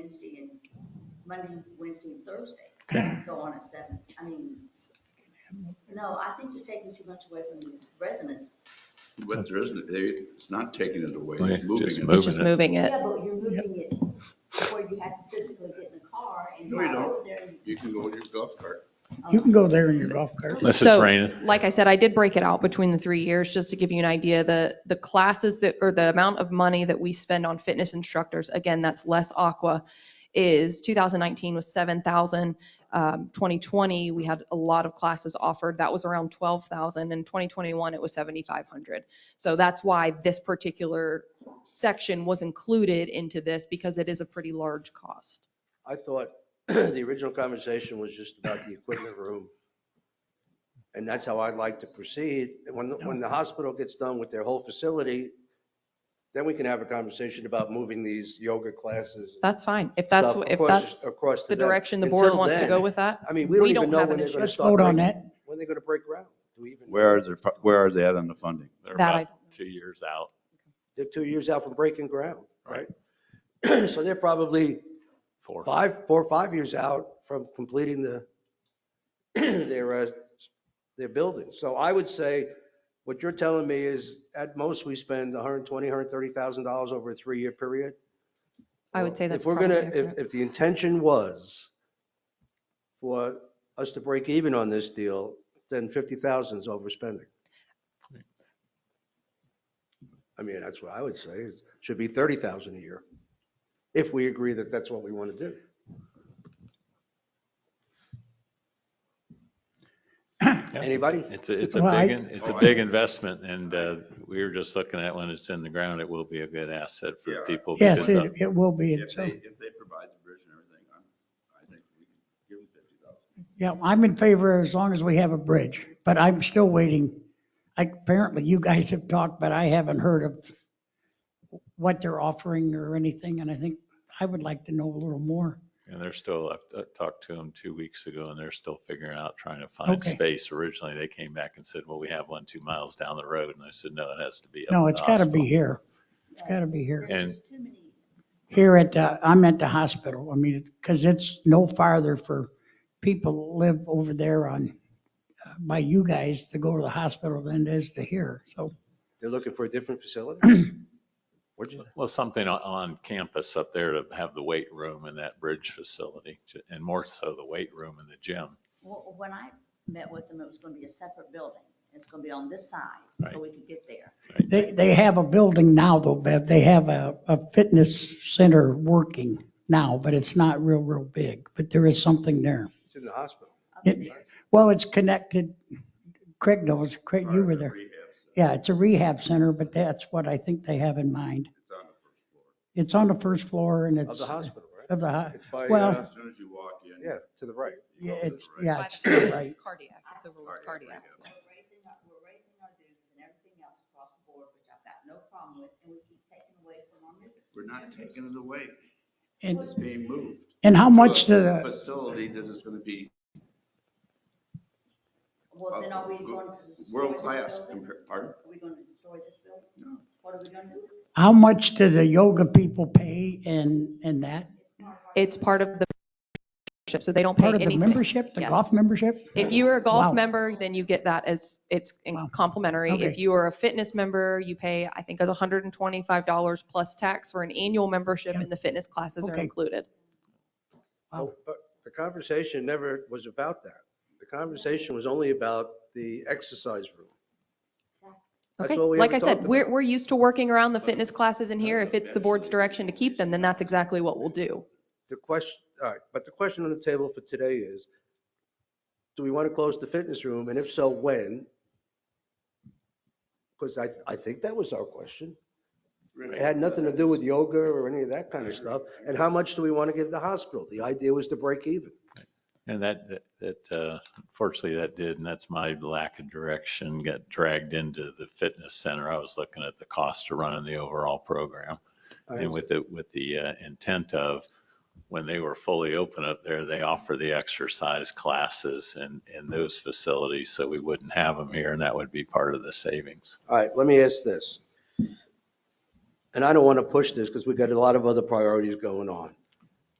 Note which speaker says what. Speaker 1: Wednesday and, Monday, Wednesday and Thursday.
Speaker 2: Okay.
Speaker 1: Go on at seven, I mean, no, I think you're taking too much away from the residents.
Speaker 3: But there isn't, they- it's not taking it away,
Speaker 4: Yeah,
Speaker 3: it's moving
Speaker 4: just
Speaker 3: it.
Speaker 4: move.
Speaker 3: No,
Speaker 4: Moving
Speaker 5: just
Speaker 4: it.
Speaker 5: moving
Speaker 2: Uh,
Speaker 5: it.
Speaker 1: Yeah, but you're moving it where you have to physically get in the car and
Speaker 3: No, you
Speaker 1: drive
Speaker 3: don't.
Speaker 1: over there. and-
Speaker 3: You can go with your golf cart.
Speaker 2: You can go there in your golf cart.
Speaker 4: Unless it's
Speaker 5: So,
Speaker 4: raining.
Speaker 5: Like I said, I did break it out between the three years, just to give you an idea, the, the classes that, or the amount of money that we spend on fitness instructors, again, that's less aqua, is 2019 was 7,000. Um, 2020, we had a lot of classes offered. That was around 12,000. In 2021, it was 7,500. So that's why this particular section was included into this because it is a pretty large cost.
Speaker 6: I thought the original conversation was just about the equipment room. And that's how I'd like to proceed. When, when the hospital gets done with their whole facility, then we can have a conversation about moving these yoga classes. and
Speaker 5: That's fine. If that's,
Speaker 6: stuff
Speaker 5: wh- if
Speaker 6: across-
Speaker 5: that's
Speaker 6: across to
Speaker 5: the
Speaker 6: them.
Speaker 5: direction the board
Speaker 6: Until
Speaker 5: wants to
Speaker 6: then,
Speaker 5: go with that.
Speaker 6: I mean,
Speaker 5: we
Speaker 6: we don't
Speaker 5: don't
Speaker 6: even know
Speaker 5: have
Speaker 6: when
Speaker 5: an
Speaker 6: they're going
Speaker 5: insurance-
Speaker 6: to
Speaker 2: Let's
Speaker 6: start.
Speaker 2: vote on
Speaker 6: breaking-
Speaker 2: that.
Speaker 6: When they're going to break ground. Do we even?
Speaker 3: Where are they, where are they at on the funding?
Speaker 4: They're
Speaker 5: That
Speaker 4: about
Speaker 5: I-
Speaker 4: Two years out.
Speaker 6: They're two years out from breaking ground, right? So they're probably
Speaker 4: Four.
Speaker 6: five, four, or five years out from completing the, their, uh, their building. So I would say, what you're telling me is at most we spend 120, 130,000 dollars over a three-year period.
Speaker 5: I would say that's
Speaker 6: If we're gonna,
Speaker 5: probably
Speaker 6: if,
Speaker 5: accurate.
Speaker 6: if the intention was for us to break even on this deal, then 50,000 is overspending. I mean, that's what I would say, is should be 30,000 a year, if we agree that that's what we want to do.
Speaker 4: Yeah.
Speaker 6: Anybody?
Speaker 4: It's, a- it's a
Speaker 2: Well, I-
Speaker 4: big, in- it's a
Speaker 3: Oh, I-
Speaker 4: big investment and uh, we were just looking at when it's in the ground, it will be a good asset
Speaker 3: Yeah.
Speaker 4: for people.
Speaker 2: Yes,
Speaker 4: because, uh,
Speaker 2: it, it will be.
Speaker 3: If
Speaker 2: It's,
Speaker 3: they,
Speaker 2: uh,
Speaker 3: if they provide the bridge and everything, I'm, I think we can give them fifty thousand.
Speaker 2: yeah, I'm in favor as long as we have a bridge, but I'm still waiting. I- Apparently you guys have talked, but I haven't heard of what they're offering or anything. And I think I would like to know a little more.
Speaker 4: And they're still, I talked to them two weeks ago and they're still figuring out, trying to find
Speaker 2: Okay.
Speaker 4: space. Originally, they came back and said, well, we have one, two miles down the road. And I said, no, it has to be. up
Speaker 2: No,
Speaker 4: at
Speaker 2: it's
Speaker 4: the
Speaker 2: got to be
Speaker 4: hospital."
Speaker 2: here. It's got to be here.
Speaker 1: uh, There's just too many.
Speaker 2: Here at, uh, I'm at the hospital. I mean, because it's no farther for people that live over there on, uh, by you guys to go to the hospital than it is to here. So
Speaker 6: They're looking for a different facility? What'd you-
Speaker 4: Well, something on, on campus up there to have the weight room and that bridge facility to- and more so the weight room and the gym.
Speaker 1: Well, when I met with them, it was gonna be a separate building. It's gonna be on this side, so we could get there.
Speaker 2: They, they have a building now though, Bev. They have a, a fitness center working now, but it's not real, real big, but there is something there.
Speaker 6: It's in the hospital.
Speaker 2: It- Well, it's connected. Craig knows, Craig, you were there.
Speaker 3: Rehab, so
Speaker 2: Yeah, it's a rehab center, but that's what I think they have in mind.
Speaker 3: it's on the first floor.
Speaker 2: It's on the first floor and
Speaker 6: Of
Speaker 2: it's.
Speaker 6: the hospital, right?
Speaker 2: Of the, ho-
Speaker 6: It's by,
Speaker 2: Well-
Speaker 6: uh,
Speaker 3: As soon as you walk in.
Speaker 6: yeah, to the right.
Speaker 2: yeah,
Speaker 3: you go to the
Speaker 2: it's,
Speaker 3: right.
Speaker 2: yeah, it's still right.
Speaker 5: Cardiac, it's over with cardiac.
Speaker 1: We're raising, our- we're raising our dues and everything else across the board, which I've got no problem with, and we keep taking away from our members.
Speaker 3: We're not taking it away.
Speaker 2: And,
Speaker 3: It's being moved.
Speaker 2: and how much
Speaker 3: to a
Speaker 2: the,
Speaker 3: Facility that is going to be
Speaker 1: Well, then are we going to destroy this
Speaker 3: world-class
Speaker 1: building?
Speaker 3: compared, pardon?
Speaker 1: Are we gonna destroy this building?
Speaker 3: No.
Speaker 1: What are we gonna do? with it?
Speaker 2: how much do the yoga people pay and, and that?
Speaker 1: It's part of our-
Speaker 5: It's part of the membership, so they don't pay
Speaker 2: Part of the
Speaker 5: anything.
Speaker 2: membership, the
Speaker 5: Yes.
Speaker 2: golf membership?
Speaker 5: If you are a
Speaker 2: Wow.
Speaker 5: golf member, then you get that as, it's in-
Speaker 2: Wow.
Speaker 5: complimentary. If
Speaker 2: Okay.
Speaker 5: you are a fitness member, you pay, I think, as $125 plus tax for an annual membership
Speaker 2: Yeah.
Speaker 5: and the fitness classes are
Speaker 2: Okay.
Speaker 5: included.
Speaker 2: Wow.
Speaker 6: But the conversation never was about that. The conversation was only about the exercise room. That's
Speaker 5: Okay,
Speaker 6: all we
Speaker 5: like
Speaker 6: ever
Speaker 5: I
Speaker 6: talked
Speaker 5: said,
Speaker 6: about.
Speaker 5: we're, we're used to working around the fitness classes in here. If it's the board's direction to keep them, then that's exactly what we'll do.
Speaker 6: The question, all right, but the question on the table for today is, do we want to close the fitness room? And if so, when? Because I, I think that was our question. It had nothing to do with yoga or any of that kind of stuff. And how much do we want to give the hospital? The idea was to break even.
Speaker 4: And that, that- that, uh, unfortunately that did, and that's my lack of direction, got dragged into the fitness center. I was looking at the cost of running the overall program.
Speaker 6: Oh,
Speaker 4: And with the, with the uh, intent of, when they were fully open up there, they offer the exercise classes in, in those facilities, so we wouldn't have them here, and that would be part of the savings.
Speaker 6: All right, let me ask this. And I don't want to push this because we've got a lot of other priorities going on.